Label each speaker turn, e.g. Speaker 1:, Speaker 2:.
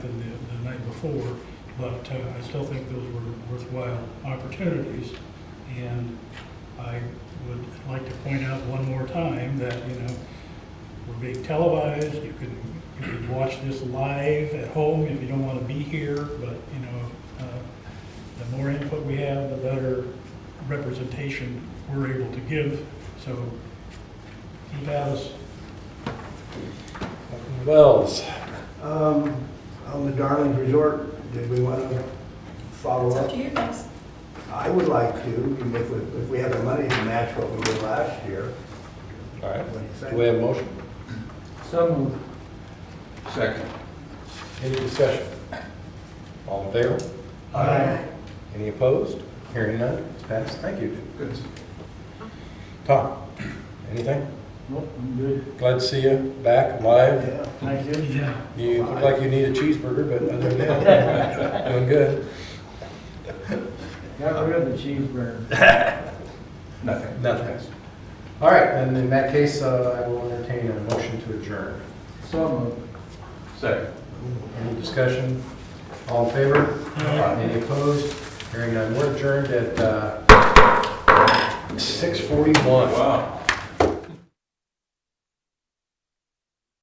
Speaker 1: before, but uh, I still think those were worthwhile opportunities. And I would like to point out one more time that, you know, we're being televised, you can, you can watch this live at home if you don't want to be here, but, you know, uh, the more input we have, the better representation we're able to give, so keep at us.
Speaker 2: Wells,
Speaker 3: Um, on the Darlings Resort, did we want to follow
Speaker 4: It's up
Speaker 3: up?
Speaker 4: to you guys.
Speaker 3: I would like to, if we, if we have the money to match what we did last year.
Speaker 2: all right.
Speaker 3: What do you think?
Speaker 2: Do we have a motion?
Speaker 5: So moved.
Speaker 6: Second.
Speaker 2: Any discussion? All in favor?
Speaker 3: Aye.
Speaker 2: Any opposed? Hearing none, it's passed. Thank you.
Speaker 6: Good.
Speaker 2: Tom, anything?
Speaker 5: Nope, I'm good.
Speaker 2: Glad to see you back live.
Speaker 3: Yeah.
Speaker 5: Thank you.
Speaker 1: Yeah.
Speaker 2: You look like you need a cheeseburger, but other than that, doing good.
Speaker 5: Got rid of the cheeseburger.
Speaker 6: Nothing.
Speaker 2: Nothing. All right, and in that case, uh, I will entertain a motion to adjourn.
Speaker 5: So moved.
Speaker 6: Second.
Speaker 2: Any discussion? All in favor? Any opposed? Hearing none, we're adjourned at uh, 6:41.
Speaker 6: Wow.